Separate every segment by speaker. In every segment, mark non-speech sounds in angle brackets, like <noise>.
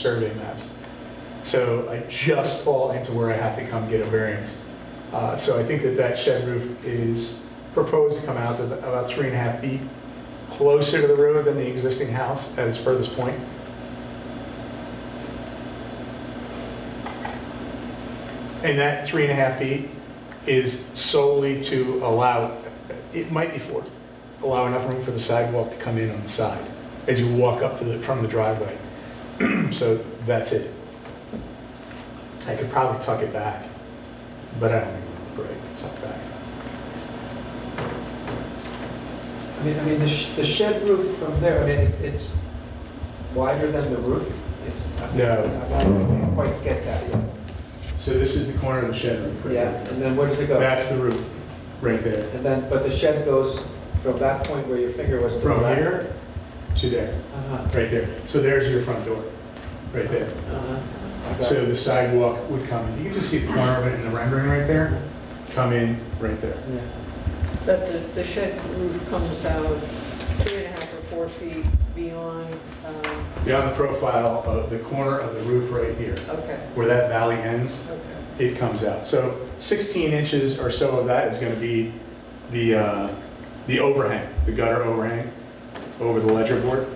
Speaker 1: survey maps. So I just fall into where I have to come get a variance. Uh, So I think that that shed roof is proposed to come out to about three and a half feet closer to the road than the existing house at its furthest point. And that three and a half feet is solely to allow, it might be four, allow enough room for the sidewalk to come in on the side as you walk up to the, from the driveway. So that's it. I could probably tuck it back, but I don't think I'm gonna break, tuck back.
Speaker 2: I mean, I mean, the sh- the shed roof from there, I mean, it- it's wider than the roof? It's, I mean,
Speaker 1: No.
Speaker 2: I don't quite get that yet.
Speaker 1: So this is the corner of the shed roof. right?
Speaker 2: Yeah, and then where does it go?
Speaker 1: That's the roof, right there.
Speaker 2: And then, but the shed goes from that point where your finger was. to the
Speaker 1: From
Speaker 2: left.
Speaker 1: here to there,
Speaker 2: Uh-huh,
Speaker 1: right there. So there's your front door, right there.
Speaker 2: uh-huh. Okay.
Speaker 1: So the sidewalk would come in. You can just see the corner of it in the rendering right there. Come in, right there.
Speaker 2: Yeah.
Speaker 3: But the, the shed roof comes out three and a half or four feet beyond, um,
Speaker 1: Beyond the profile of the corner of the roof right here,
Speaker 3: okay,
Speaker 1: where that valley ends,
Speaker 3: okay.
Speaker 1: it comes out. So 16 inches or so of that is going to be the, uh, the overhang, the gutter overhang over the ledger board.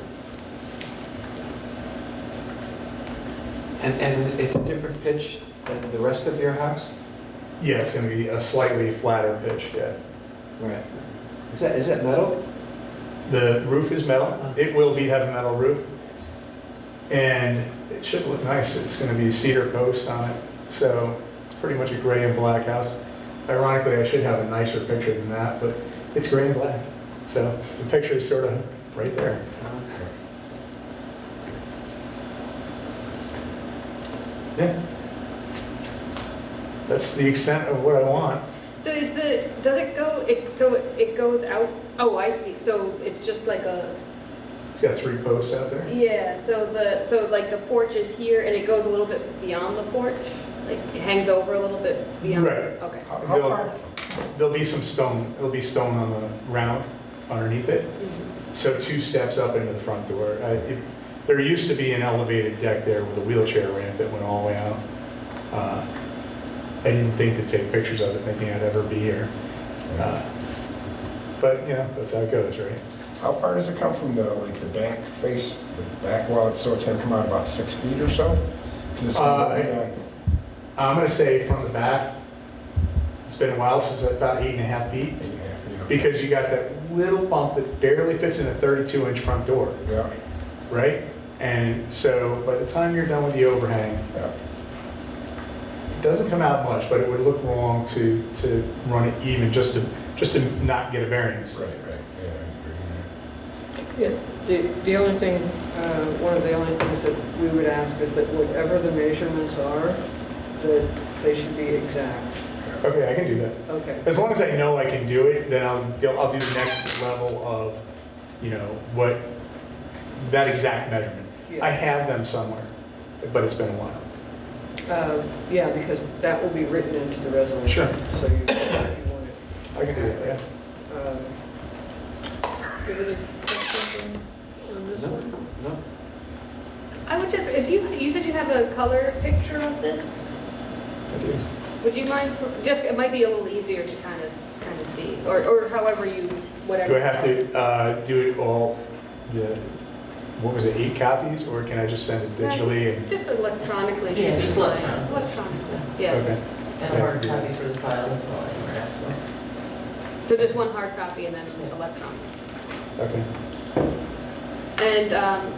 Speaker 2: And, and it's a different pitch than the rest of your house?
Speaker 1: Yeah, it's going to be a slightly flatter pitch, yeah.
Speaker 2: Right. Is that, is that metal?
Speaker 1: The roof is metal. It will be, have a metal roof. And it should look nice. It's going to be cedar posts on it. So it's pretty much a gray and black house. Ironically, I should have a nicer picture than that, but it's gray and black. So the picture is sort of right there.
Speaker 2: Uh,
Speaker 1: Yeah. That's the extent of what I want.
Speaker 4: So is the, does it go, it, so it goes out, oh, I see, so it's just like a,
Speaker 1: It's got three posts out there.
Speaker 4: yeah, so the, so like the porch is here and it goes a little bit beyond the porch? Like it hangs over a little bit beyond?
Speaker 1: Right.
Speaker 4: Okay,
Speaker 1: There'll- There'll be some stone, there'll be stone on the ground underneath it,
Speaker 4: Mhm.
Speaker 1: so two steps up into the front door. I- it- There used to be an elevated deck there with a wheelchair ramp that went all the way out. Uh, I didn't think to take pictures of it, thinking I'd ever be here. Uh, But, you know, that's how it goes, right?
Speaker 5: How far does it come from the, like, the back face, the back wall, so it's gonna come out about six feet or so? 'Cause it's gonna be,
Speaker 1: Uh,
Speaker 5: uh,
Speaker 1: I'm gonna say from the back, it's been a while since about eight and a half feet.
Speaker 5: eight and a half feet. up.
Speaker 1: because you got that little bump that barely fits in a 32 inch front door,
Speaker 5: Yeah,
Speaker 1: right? And so by the time you're done with the overhang,
Speaker 5: yeah.
Speaker 1: it doesn't come out much, but it would look wrong to, to run it even just to, just to not get a variance.
Speaker 5: Right, right, yeah, I
Speaker 3: Yeah, the, the only thing, uh, one of the only things that we would ask is that whatever the measurements are, that they should be exact.
Speaker 1: Okay, I can do that.
Speaker 3: Okay,
Speaker 1: As long as I know I can do it, then I'll, do- I'll do the next level of, you know, what, that exact measurement. I
Speaker 3: yeah.
Speaker 1: have them somewhere, but it's been a while.
Speaker 3: Uh, Yeah, because that will be written into the resolution. So you you want it.
Speaker 1: I can do that, yeah.
Speaker 3: um, Give it a question on on this
Speaker 2: No.
Speaker 3: one?
Speaker 2: No?
Speaker 4: I would just, if you, you said you have a color picture of this,
Speaker 1: I do.
Speaker 4: would you mind, just, it might be a little easier to kind of, kind of see, or, or however you, whatever.
Speaker 1: Do I have to uh, do it all, the, what was it, eight copies, or can I just send it digitally? and-
Speaker 4: Just electronically
Speaker 6: Yeah,
Speaker 4: should be
Speaker 6: just
Speaker 4: fine,
Speaker 6: electron-
Speaker 4: electronically, yeah.
Speaker 1: Okay.
Speaker 6: And a hard copy for the file, that's all I ever asked for.
Speaker 4: So just one hard copy and then electronic.
Speaker 1: Okay.
Speaker 4: And um,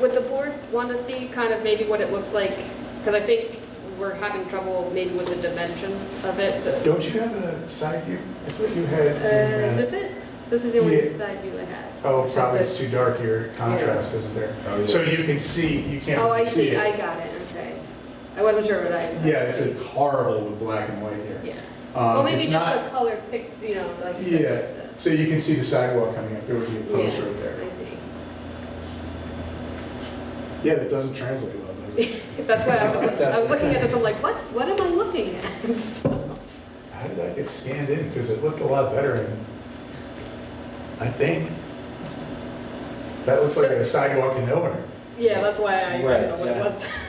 Speaker 4: would the board want to see kind of maybe what it looks like? Because I think we're having trouble maybe with the dimensions of it. so-
Speaker 1: Don't you have a side view? I thought you had.
Speaker 4: Uh, Is this it? This is the only
Speaker 1: Yeah.
Speaker 4: side view I had.
Speaker 1: Oh, probably it's too dark here, contrast isn't there.
Speaker 5: agree. Oh, yeah.
Speaker 1: So you can see, you can't.
Speaker 4: Oh, I see,
Speaker 1: it.
Speaker 4: I got it, okay. I wasn't sure what I.
Speaker 1: Yeah, it's it's horrible with black and white here.
Speaker 4: Yeah.
Speaker 1: Um,
Speaker 4: Well, maybe
Speaker 1: it's
Speaker 4: just
Speaker 1: not-
Speaker 4: the color pic, you know, like. you said,
Speaker 1: Yeah.
Speaker 4: it's the-
Speaker 1: So you can see the sidewalk coming up, there would be a post right
Speaker 4: Yeah,
Speaker 1: there.
Speaker 4: I see. <laughs>
Speaker 1: Yeah, that doesn't translate well, does
Speaker 4: <laughs>
Speaker 1: it?
Speaker 4: That's why I was, I was
Speaker 2: That's-
Speaker 4: looking at this, I'm like, what, what am I looking at? <laughs> So-
Speaker 1: How did that get scanned in? Because it looked a lot better in, I think. That looks like a sidewalk to nowhere.
Speaker 4: Yeah, that's why I, I
Speaker 2: Right,
Speaker 4: don't know what it
Speaker 2: yeah.
Speaker 4: was.